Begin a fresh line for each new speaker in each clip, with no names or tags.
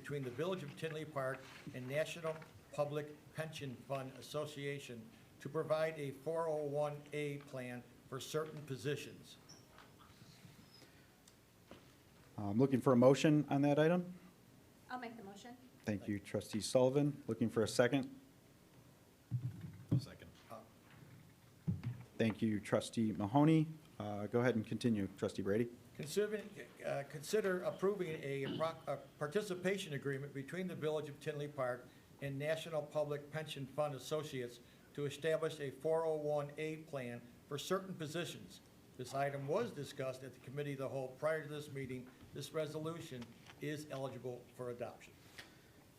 between the Village of Tinley Park and National Public Pension Fund Association to provide a 401A plan for certain positions.
I'm Um, looking for a motion on that item.
I'll make the motion.
Thank you, trustee Sullivan. Looking for a second.
second.
Uh,
Thank you, trustee Mahoney. Uh, Go ahead and continue, trustee Brady.
Considering, uh, consider approving a pro- a participation agreement between the Village of Tinley Park and National Public Pension Fund Associates to establish a 401A plan for certain positions. This item was discussed at the Committee of the Whole prior to this meeting. This resolution is eligible for adoption.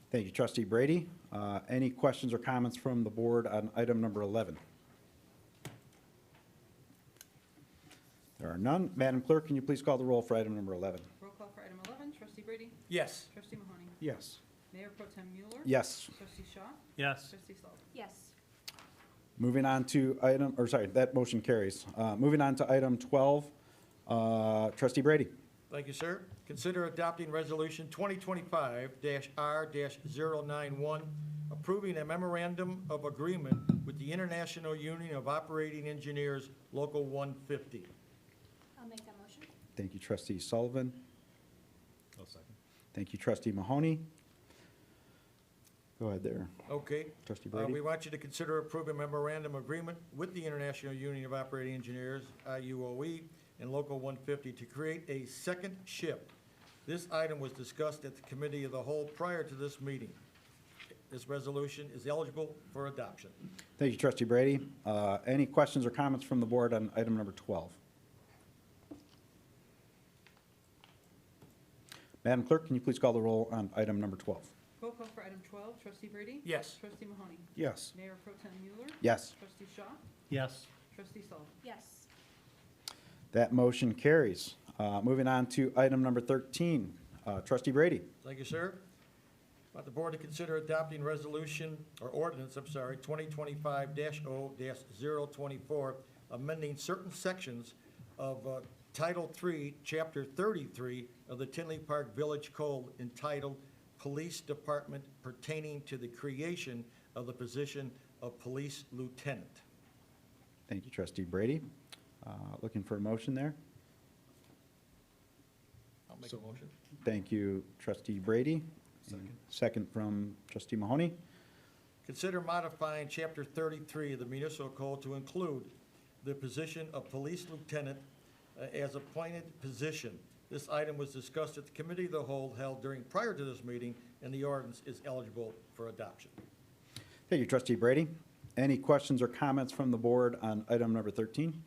Thank you, trustee Brady. Uh, Any questions or comments from the board on item number 11? There are none. Madam Clerk, can you please call the roll for item number 11?
Roll call for item 11, trustee Brady,
Yes.
trustee Mahoney,
Yes.
Mayor Pro Tem Mueller.
Yes.
Trustee Shaw,
Yes.
trustee Sullivan.
Yes.
Moving on to item, or sorry, that motion carries. Uh, Moving on to item 12, uh, trustee Brady.
Thank you, sir. Consider adopting Resolution 2025-R-091, approving a memorandum of agreement with the International Union of Operating Engineers, Local 150.
I'll make that motion.
Thank you, trustee Sullivan.
I'll second.
Thank you, trustee Mahoney. Go ahead there,
Okay?
trustee
Uh, We
Brady.
want you to consider approving memorandum agreement with the International Union of Operating Engineers, IUOE, E, and Local 150 to create a second ship. This item was discussed at the Committee of the Whole prior to this meeting. This resolution is eligible for adoption.
Thank you, trustee Brady. Uh, Any questions or comments from the board on item number 12? Madam Clerk, can you please call the roll on item number 12?
Roll call for item 12, trustee Brady.
Yes.
Trustee Mahoney,
Yes.
Mayor Pro Tem Mueller.
Yes.
Trustee Shaw,
Yes.
trustee Sullivan.
Yes.
That motion carries. Uh, Moving on to item number 13, uh, trustee Brady.
Thank you, sir. Want the board to consider adopting resolution, or ordinance, I'm sorry, 2025-0-024, amending certain sections of uh, Title III, Chapter 33 of the Tinley Park Village Code entitled Police Department pertaining to the creation of the position of police lieutenant.
Thank you, trustee Brady. Uh, Looking for a motion there?
I'll make a motion.
Thank you, trustee Brady. Second. Second from trustee Mahoney.
Consider modifying Chapter 33 of the municipal code to include the position of police lieutenant uh, as appointed position. This item was discussed at the committee of the whole held during, prior to this meeting, and the ordinance is eligible for adoption.
Thank you, trustee Brady. Any questions or comments from the board on item number 13?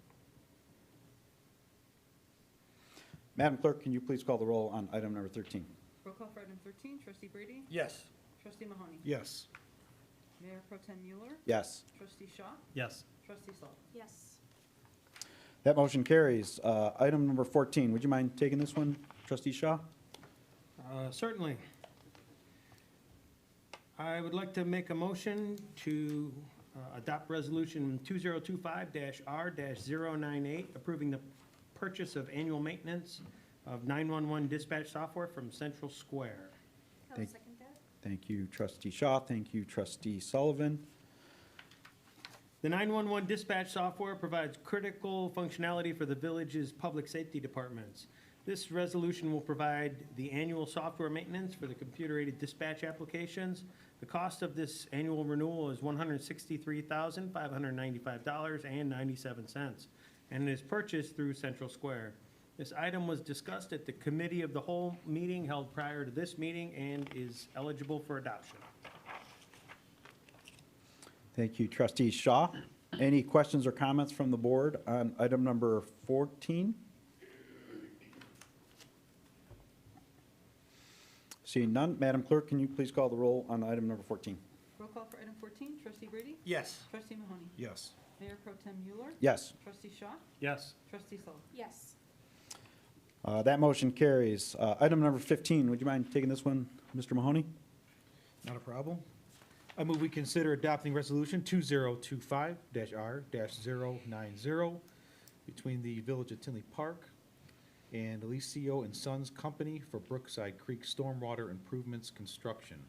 Madam Clerk, can you please call the roll on item number 13?
Roll call for item 13, trustee Brady,
Yes.
trustee Mahoney.
Yes.
Mayor Pro Tem Mueller,
Yes.
trustee Shaw,
Yes.
trustee Sullivan.
Yes.
That motion carries. Uh, Item number 14, would you mind taking this one, trustee Shaw?
Uh, Certainly. I would like to make a motion to uh, adopt Resolution 2025-R-098, approving the purchase of annual maintenance of 911 dispatch software from Central Square.
I'll
Thank-
second that.
Thank you, trustee Shaw. Thank you, trustee Sullivan.
The 911 dispatch software provides critical functionality for the village's public safety departments. This resolution will provide the annual software maintenance for the computer-aided dispatch applications. The cost of this annual renewal is $163,595.97, and is purchased through Central Square. This item was discussed at the Committee of the Whole meeting held prior to this meeting and is eligible for adoption.
Thank you, trustee Shaw. Any questions or comments from the board on item number 14? Seeing none, Madam Clerk, can you please call the roll on item number 14?
Roll call for item 14, trustee Brady,
Yes.
trustee Mahoney,
Yes.
Mayor Pro Tem Mueller,
Yes,
trustee Shaw,
Yes.
trustee Sullivan.
Yes.
uh, that motion carries. Uh, Item number 15, would you mind taking this one, Mr. Mahoney?
Not a problem. I move we consider adopting resolution two zero two five R 90 between the Village of Tinley Park and Alicio and Sons Company for Brookside Creek Stormwater Improvements Construction.